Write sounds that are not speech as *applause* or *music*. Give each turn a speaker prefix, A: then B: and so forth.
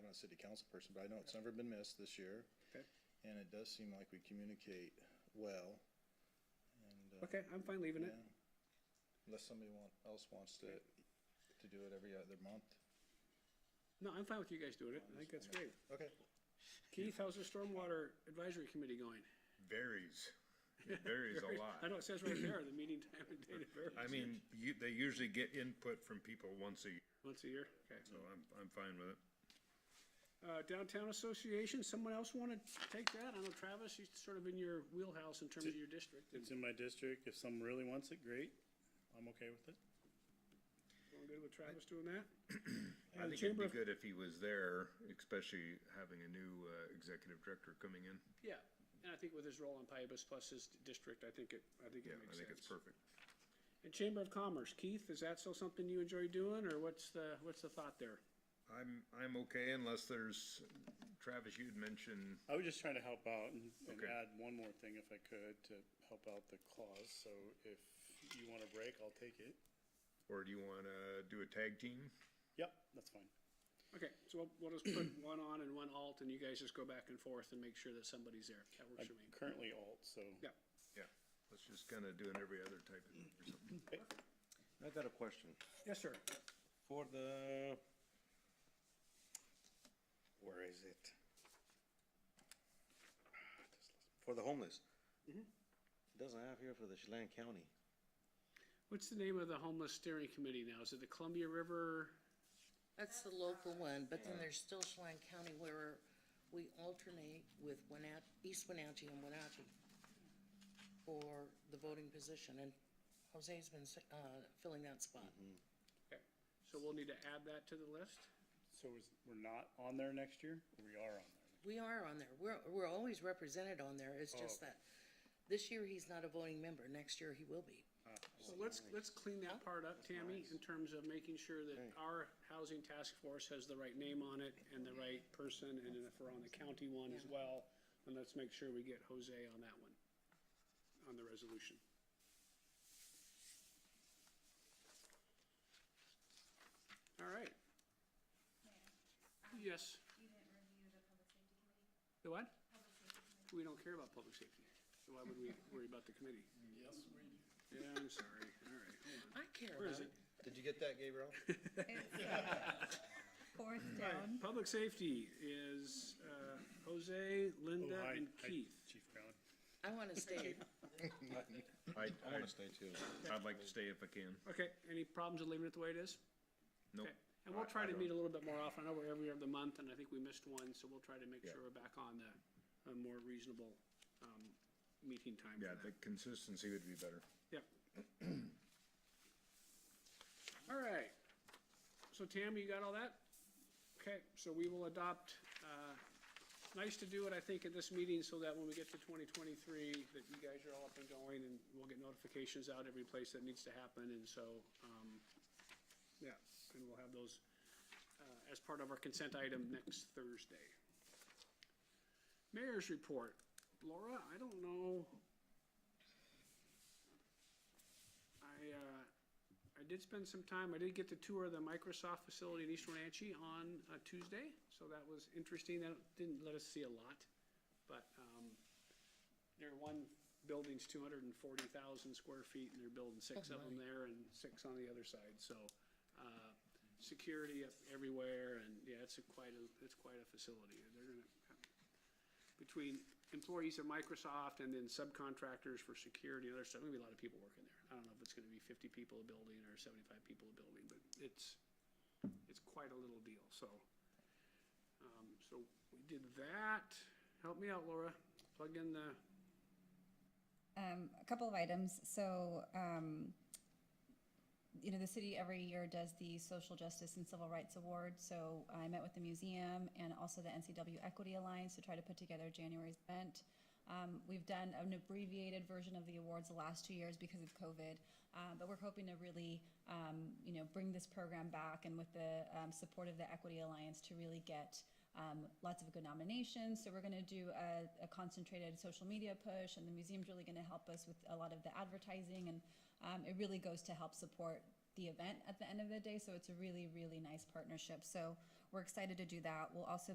A: not a city council person, but I know it's never been missed this year.
B: Okay.
A: And it does seem like we communicate well. and, uh,
B: Okay, I'm fine leaving it.
A: yeah. Unless somebody want, else wants to, to do it every other month.
B: No, I'm fine with you guys doing it. I think that's great.
A: Okay.
B: Keith, how's the Stormwater Advisory Committee going?
C: Varies.
B: *laughs*
C: It varies a lot.
B: I know it says right there, the meeting time and date of variance.
C: I mean, you, they usually get input from people once a year,
B: Once a year, okay.
C: so I'm, I'm fine with it.
B: Uh, Downtown Association, someone else want to take that? I know Travis, he's sort of in your wheelhouse in terms of your district. and
D: It's in my district. If someone really wants it, great. I'm okay with it.
B: Going good with Travis doing that? Uh,
C: I think it'd
B: Chamber
C: be
B: of-
C: good if he was there, especially having a new, uh, executive director coming in.
B: Yeah, and I think with his role in Pybus plus his district, I think it, I think
C: Yeah,
B: it makes
C: I think it's
B: sense.
C: perfect.
B: And Chamber of Commerce, Keith, is that still something you enjoy doing, or what's the, what's the thought there?
C: I'm, I'm okay unless there's, Travis, you had mentioned,
D: I was just trying to help out and, and
C: Okay.
D: add one more thing if I could to help out the clause. So if you want a break, I'll take it.
C: or do you wanna do a tag team?
D: Yep, that's fine.
B: Okay, so we'll, we'll just put *clears throat* one on and one alt, and you guys just go back and forth and make sure that somebody's there. That works
D: I'm
B: for me.
D: currently alt, so.
B: Yeah,
C: Yeah, let's just kinda do an every other type of thing or something.
B: *laughs*
E: I got a question.
B: yes, sir.
E: For the, where is it? Ah, For the homeless. It Doesn't have here for the Chelan County.
B: What's the name of the homeless steering committee now? Is it the Columbia River?
F: That's the local one, but then there's still Chelan County where we alternate with Wenat, East Wenatchee and Wenatchee for the voting position, and Jose's been, s- uh, filling that spot.
B: Okay, So we'll need to add that to the list?
D: So is, we're not on there next year? We are on there.
F: We are on there, we're, we're always represented on there, it's just that this year he's not a voting member, next year he will be.
B: So let's, let's clean that part up, Tammy, in terms of making sure that our housing task force has the right name on it and the right person, and then if we're on the county one as well, then let's make sure we get Jose on that one, on the resolution. All right. Yes,
G: You didn't review the public safety committee?
B: the what?
G: Public safety committee?
B: We don't care about public safety, so why would we worry about the committee?
D: Yes, we do.
B: Yeah, I'm sorry, all right, hold on.
F: I care
B: Where
F: about
B: is
F: it.
B: it?
A: Did you get that, Gabriel?
G: Fourth down.
B: Public safety is uh, Jose, Linda,
D: Oh, hi,
B: and
D: hi,
B: Keith.
D: Chief Brown.
F: I
B: *laughs*
F: wanna stay,
C: I,
A: *laughs* I wanna stay too.
C: I, I'd like to stay if I can.
B: Okay, any problems with leaving it the way it is?
C: Nope.
B: Okay, And we'll
C: I-
B: try
C: I
B: to
C: don't-
B: meet a little bit more often. I know we're every other month, and I think we missed one, so we'll try to make
C: Yeah.
B: sure we're back on the, a more reasonable um, meeting time
C: Yeah,
B: for
C: the
B: that.
C: consistency would be better.
B: Yep. All right. So Tam, you got all that? Okay, so we will adopt, uh, nice to do it, I think, at this meeting so that when we get to twenty twenty-three, that you guys are all up and going and we'll get notifications out every place that needs to happen and so, um, yeah, and we'll have those, uh, as part of our consent item next Thursday. Mayor's report. Laura, I don't know. I, uh, I did spend some time, I did get to tour the Microsoft facility in East Wenatchee on uh, Tuesday, so that was interesting, that didn't let us see a lot, but, um, their one building's two hundred and forty thousand square feet, and they're building six of them there and six on the other side, so, uh, security up everywhere, and, yeah, it's a quite a, it's quite a facility, they're gonna, between employees of Microsoft and then subcontractors for security and other stuff, gonna be a lot of people working there. I don't know if it's gonna be fifty people a building or seventy-five people a building, but it's, it's quite a little deal, so. Um, so we did that. Help me out, Laura. Plug in the,
G: Um, a couple of items, so, um, you know, the city every year does the Social Justice and Civil Rights Award, so I met with the museum and also the NCW Equity Alliance to try to put together January's event. Um, we've done an abbreviated version of the awards the last two years because of COVID, uh, but we're hoping to really, um, you know, bring this program back and with the, um, support of the Equity Alliance to really get, um, lots of good nominations. So we're going to do a, a concentrated social media push, and the museum's really going to help us with a lot of the advertising, and um, it really goes to help support the event at the end of the day. So it's a really, really nice partnership. So We're excited to do that. We'll also